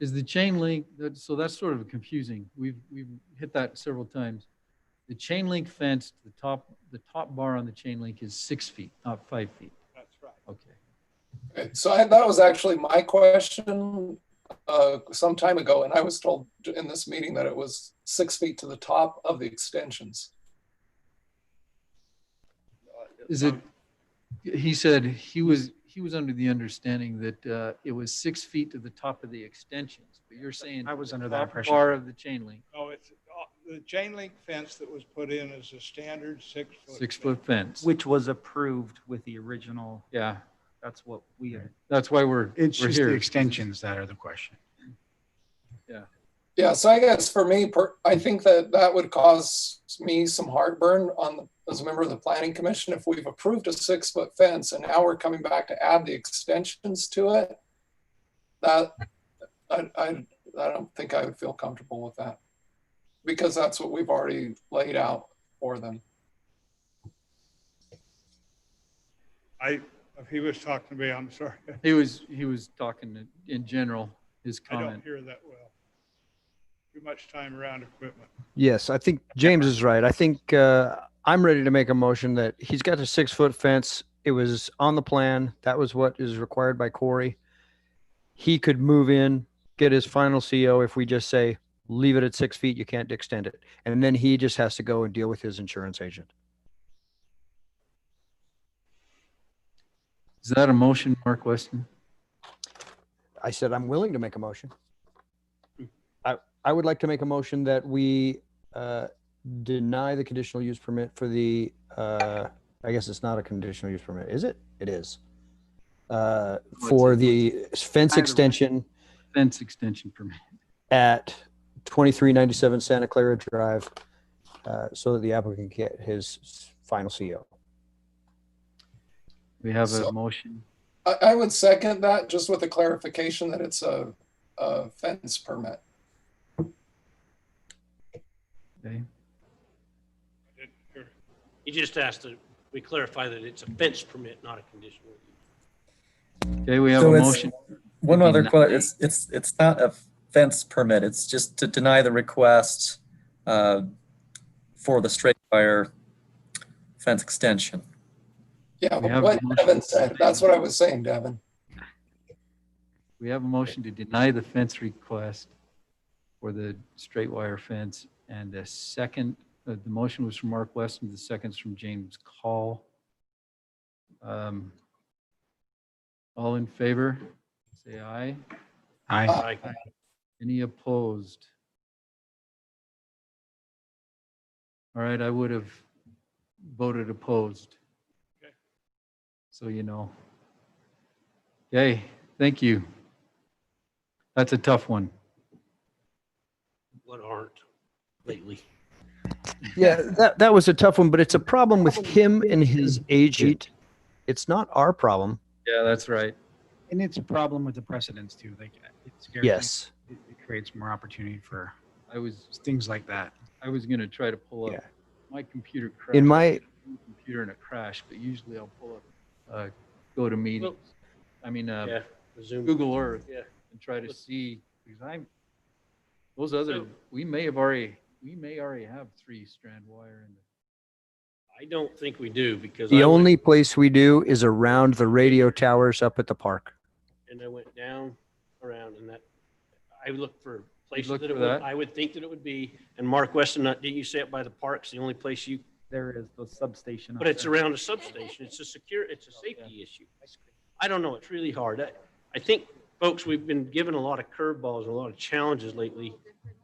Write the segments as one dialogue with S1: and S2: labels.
S1: is the chain link, that- so that's sort of confusing. We've, we've hit that several times. The chain link fence, the top, the top bar on the chain link is six feet, not five feet.
S2: That's right.
S1: Okay.
S3: So I, that was actually my question uh, some time ago, and I was told in this meeting that it was six feet to the top of the extensions.
S1: Is it, he said he was, he was under the understanding that uh, it was six feet to the top of the extensions, but you're saying.
S4: I was under
S1: the
S4: that
S1: top
S4: impression.
S1: Bar of the chain link,
S2: No, it's, uh, the chain link fence that was put in is a standard six foot.
S1: six foot fence.
S4: Which was approved with the original,
S1: Yeah,
S4: that's what we had.
S1: that's why we're, we're
S5: It's just the
S1: here.
S5: extensions that are the question.
S3: Yeah, so I guess for me, per, I think that that would cause me some heartburn on the, as a member of the planning commission if we've approved a six foot fence and now we're coming back to add the extensions to it. That I, I, I don't think I would feel comfortable with that because that's what we've already laid out for them.
S2: I, if he was talking to me, I'm sorry.
S1: He was, he was talking in- in general, his
S2: I don't
S1: comment.
S2: hear that well. Too much time around equipment.
S6: Yes, I think James is right. I think uh, I'm ready to make a motion that he's got a six foot fence. It was on the plan. That was what is required by Corey. He could move in, get his final CO if we just say, leave it at six feet, you can't extend it. And then he just has to go and deal with his insurance agent.
S1: Is that a motion, Mark Weston?
S6: I said, I'm willing to make a motion. Hmm. I, I would like to make a motion that we uh, deny the conditional use permit for the, uh, I guess it's not a conditional use permit, is it? It is. Uh, For the fence extension
S1: Fence extension permit.
S6: at 2397 Santa Clara Drive uh, so that the applicant can get his final CO.
S1: We have a
S3: So-
S1: motion.
S3: I, I would second that just with a clarification that it's a, a fence permit.
S1: Okay.
S2: I didn't hear it.
S7: He just asked that we clarify that it's a fence permit, not a conditional use.
S1: Okay, we have
S8: So
S1: a
S8: it's-
S1: motion.
S8: One
S1: Maybe
S8: other
S1: not.
S8: question, it's, it's, it's not a fence permit, it's just to deny the request uh, for the straight wire fence extension.
S3: Yeah,
S1: We have
S3: what
S1: a motion.
S3: Devin said, that's what I was saying, Devin.
S1: We have a motion to deny the fence request for the straight wire fence. And the second, uh, the motion was from Mark Weston, the second's from James Call. Um, All in favor, say aye.
S5: I,
S7: Aye.
S1: Any opposed? All right, I would have voted opposed.
S2: Okay.
S1: So you know. Okay, thank you. That's a tough one.
S7: What aren't lately?
S6: Yeah, that, that was a tough one, but it's a problem with him and his agent. It's not our problem.
S1: Yeah, that's right.
S5: and it's a problem with the precedents too. Like it scares me.
S6: Yes.
S5: It it creates more opportunity for
S1: I was,
S5: things like that.
S1: I was gonna try to pull up,
S6: Yeah.
S1: my computer crashed.
S6: In my,
S1: Computer in a crash, but usually I'll pull up, uh, go to meetings. I mean, uh,
S7: Yeah, the Zoom.
S1: Google Earth
S7: Yeah.
S1: and try to see, because I'm, those other, we may have already, we may already have three strand wire in the
S7: I don't think we do because.
S6: The
S7: I went-
S6: only place we do is around the radio towers up at the park.
S7: And I went down around and that, I looked for places
S1: looked
S7: that it
S1: for
S7: would,
S1: that?
S7: I would think that it would be. And Mark Weston, uh, didn't you say it by the parks, the only place you,
S4: There is the substation. up
S7: but it's
S4: there.
S7: around a substation. It's a secure, it's a safety issue. I don't know. It's really hard. I, I think, folks, we've been given a lot of curveballs and a lot of challenges lately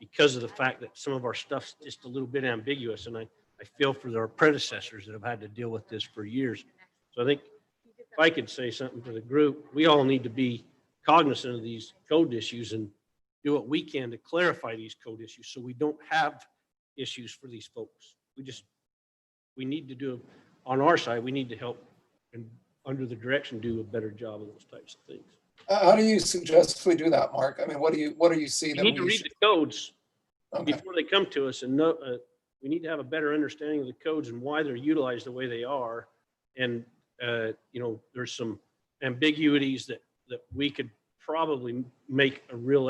S7: because of the fact that some of our stuff's just a little bit ambiguous. And I, I feel for our predecessors that have had to deal with this for years. So I think if I could say something to the group, we all need to be cognizant of these code issues and do what we can to clarify these code issues so we don't have issues for these folks. We just, we need to do, on our side, we need to help and under the direction, do a better job of those types of things.
S3: Uh, How do you suggest we do that, Mark? I mean, what do you, what do you see
S7: We
S3: that
S7: need to
S3: we
S7: read
S3: should?
S7: the codes
S3: Okay,
S7: before they come to us and know, uh, we need to have a better understanding of the codes and why they're utilized the way they are. And, uh, you know, there's some ambiguities that, that we could probably make a real